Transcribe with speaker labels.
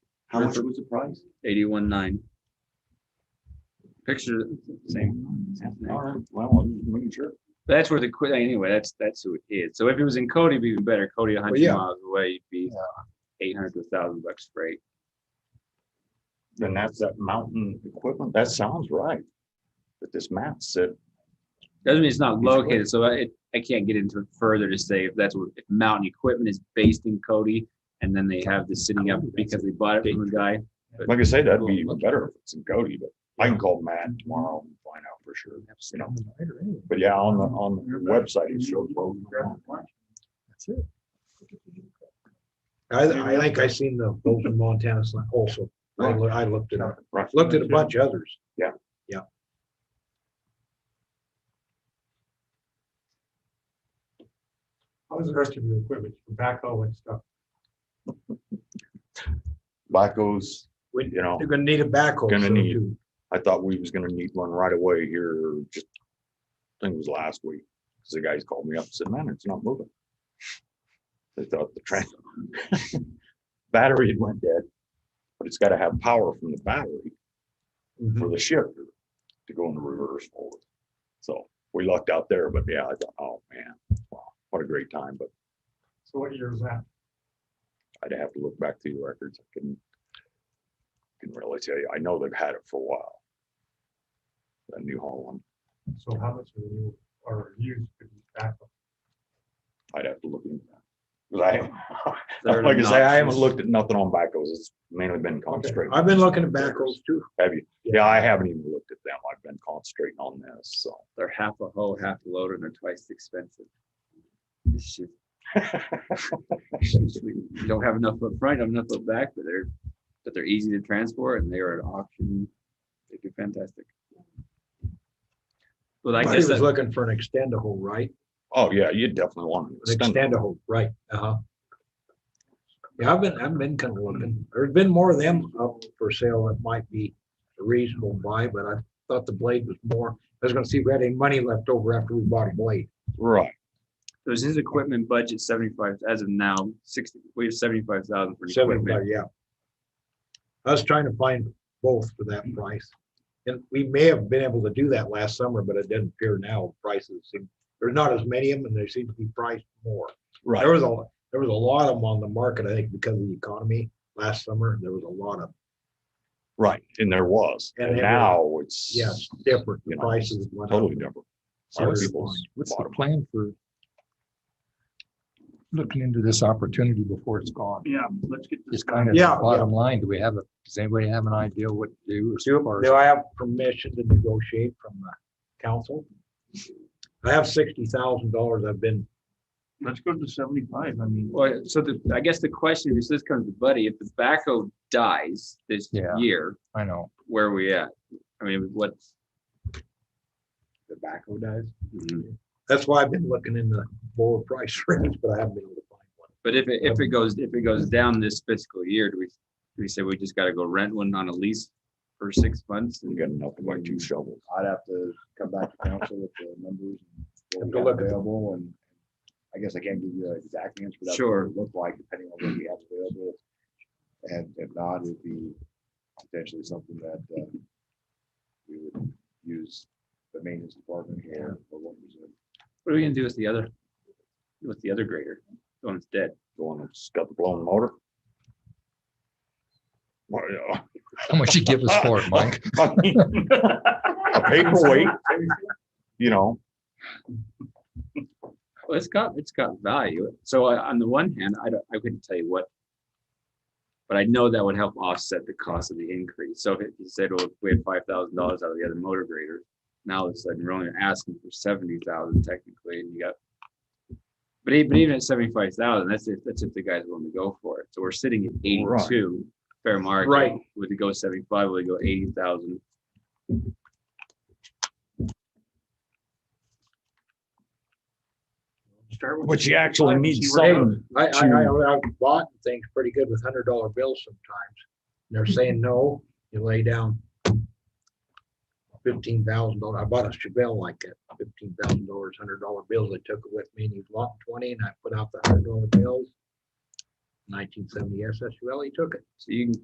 Speaker 1: How much was the price?
Speaker 2: eighty-one nine. Picture, same. same thing.
Speaker 1: All right, well, I'm just making sure.
Speaker 2: That's where the, que- anyway, that's, that's who it is. So if it was in Cody, it'd be even better. Cody a hundred
Speaker 3: yeah.
Speaker 2: miles away, you'd be eight hundred to a thousand bucks freight.
Speaker 1: Then that's that mountain equipment. That sounds right. But this map said,
Speaker 2: Doesn't mean it's not
Speaker 1: It's close.
Speaker 2: located, so I, it- I can't get into it further to say if that's what, if mountain equipment is based in Cody. And then they have this sitting up because they bought it from a guy.
Speaker 1: like I say, that'd be even better if it's in Cody, but I can call Matt tomorrow and find out for sure, you know. But yeah, on the, on the website, it shows both.
Speaker 3: I, I think I seen the Bolton, Montana sign also. I, loo- I looked it up,
Speaker 1: Right.
Speaker 3: looked at a bunch of others.
Speaker 4: How's the rest of your equipment, your backhoe and stuff?
Speaker 1: Blackos,
Speaker 3: We-
Speaker 1: you know,
Speaker 3: You're gonna need a backhoe.
Speaker 1: Gonna
Speaker 3: soon,
Speaker 1: need.
Speaker 3: too.
Speaker 1: I thought we was gonna need one right away here, just, I think it was last week. Cause the guys called me up and said, man, it's not moving. They thought the trans, battery had went dead, but it's gotta have power from the battery.
Speaker 3: Mhm.
Speaker 1: for the shifter to go into reverse forward. So we lucked out there, but yeah, I thought, oh man, wow, what a great time, but
Speaker 4: So what year is that?
Speaker 1: I'd have to look back through the records. I couldn't, couldn't really tell you. I know they've had it for a while. That New Holland,
Speaker 4: So how much are you, are used for these backhoe?
Speaker 1: I'd have to look into that. 'Cause I haven't-
Speaker 2: They're
Speaker 1: like I say, I haven't
Speaker 2: obnoxious.
Speaker 1: looked at nothing on backhoes. It's mainly been concentrating.
Speaker 3: I've been looking at backhoes too.
Speaker 1: Have you? Yeah, I haven't even looked at them. I've been concentrating on this, so.
Speaker 2: They're half a hoe, half a loader, and they're twice the expensive. Shit. You don't have enough up front, you don't have enough up back, but they're, but they're easy to transport and they are an auction. They do fantastic. But I
Speaker 3: He
Speaker 2: guess
Speaker 3: was
Speaker 2: that,
Speaker 3: looking for an extendable, right?
Speaker 1: Oh, yeah, you definitely want
Speaker 3: An
Speaker 1: to.
Speaker 3: extendable, right, uh-huh. Yeah, I've been, I've been kind of looking, there's been more of them up for sale that might be a reasonable buy, but I thought the blade was more, I was gonna see if we had any money left over after we bought a blade.
Speaker 1: Right.
Speaker 2: there's his equipment budget seventy-five, as of now, sixty, we have seventy-five thousand for the equipment.
Speaker 3: Seventy-five, yeah. I was trying to find both for that price. And we may have been able to do that last summer, but it doesn't appear now. Prices seem, there's not as many of them and they seem to be priced more.
Speaker 1: Right.
Speaker 3: There was a, there was a lot of them on the market, I think, because of the economy last summer. There was a lot of,
Speaker 1: Right, and there was,
Speaker 3: And
Speaker 1: and
Speaker 3: everyone-
Speaker 1: now it's.
Speaker 3: yes, different
Speaker 1: You know,
Speaker 3: prices. went up.
Speaker 1: Totally different.
Speaker 3: So
Speaker 1: Other
Speaker 3: it's
Speaker 1: people's
Speaker 5: What's the
Speaker 1: bottom.
Speaker 5: plan for looking into this opportunity before it's gone?
Speaker 2: Yeah, let's get
Speaker 5: Just kind of
Speaker 3: Yeah, yeah.
Speaker 5: bottom line, do we have, a? does anybody have an idea what to do? as far as-
Speaker 3: Do I have permission to negotiate from the council? I have sixty thousand dollars I've been
Speaker 4: Let's go to seventy-five, I mean.
Speaker 2: Well, so the, I guess the question, is this comes to Buddy, if the backhoe dies this
Speaker 5: Yeah.
Speaker 2: year,
Speaker 5: I know.
Speaker 2: where are we at? I mean, what's?
Speaker 3: tobacco dies. That's why I've been looking in the lower price range, but I haven't been able to find one.
Speaker 2: But if it, if it goes, if it goes down this fiscal year, do we, do we say we just gotta go rent one on a lease for six months?
Speaker 1: We
Speaker 2: And
Speaker 1: got enough to buy two shovels.
Speaker 6: I'd have to come back to council with the numbers and what
Speaker 3: Have
Speaker 6: we
Speaker 3: to
Speaker 6: have
Speaker 3: look at them.
Speaker 6: available and I guess I can't give you an exact answer. but that's what
Speaker 2: Sure.
Speaker 6: it would Look like depending on what we have available. And if not, it'd be potentially something that uh, we would use the maintenance department here. or what was it?
Speaker 2: What are we gonna do with the other, with the other grader? The one that's dead?
Speaker 1: The one that's got the blown motor. Well, yeah.
Speaker 5: How much you give us for it, Mike?
Speaker 1: I mean, A paperweight, you know,
Speaker 2: Well, it's got, it's got value. So I- on the one hand, I don't, I couldn't tell you what. But I know that would help offset the cost of the increase. So if you said, well, if we had five thousand dollars out of the other motor grader, now it's like you're only asking for seventy thousand technically and you got. But even, but even at seventy-five thousand, that's if, that's if the guy's willing to go for it. So we're sitting at
Speaker 1: Right.
Speaker 2: eighty-two, fair market.
Speaker 3: Right.
Speaker 2: Would it go seventy-five, would it go eighty thousand?
Speaker 4: Start with.
Speaker 1: but you actually need some,
Speaker 3: I, I, I, I've bought things pretty good with hundred dollar bills sometimes. And they're saying, no, you lay down fifteen thousand dollars. I bought a Chevelle like that, fifteen thousand dollars, hundred dollar bills. I took it with me and he locked twenty and I put out the hundred dollar bills. Nineteen seventy SS Chevelle, he took it.
Speaker 2: So you can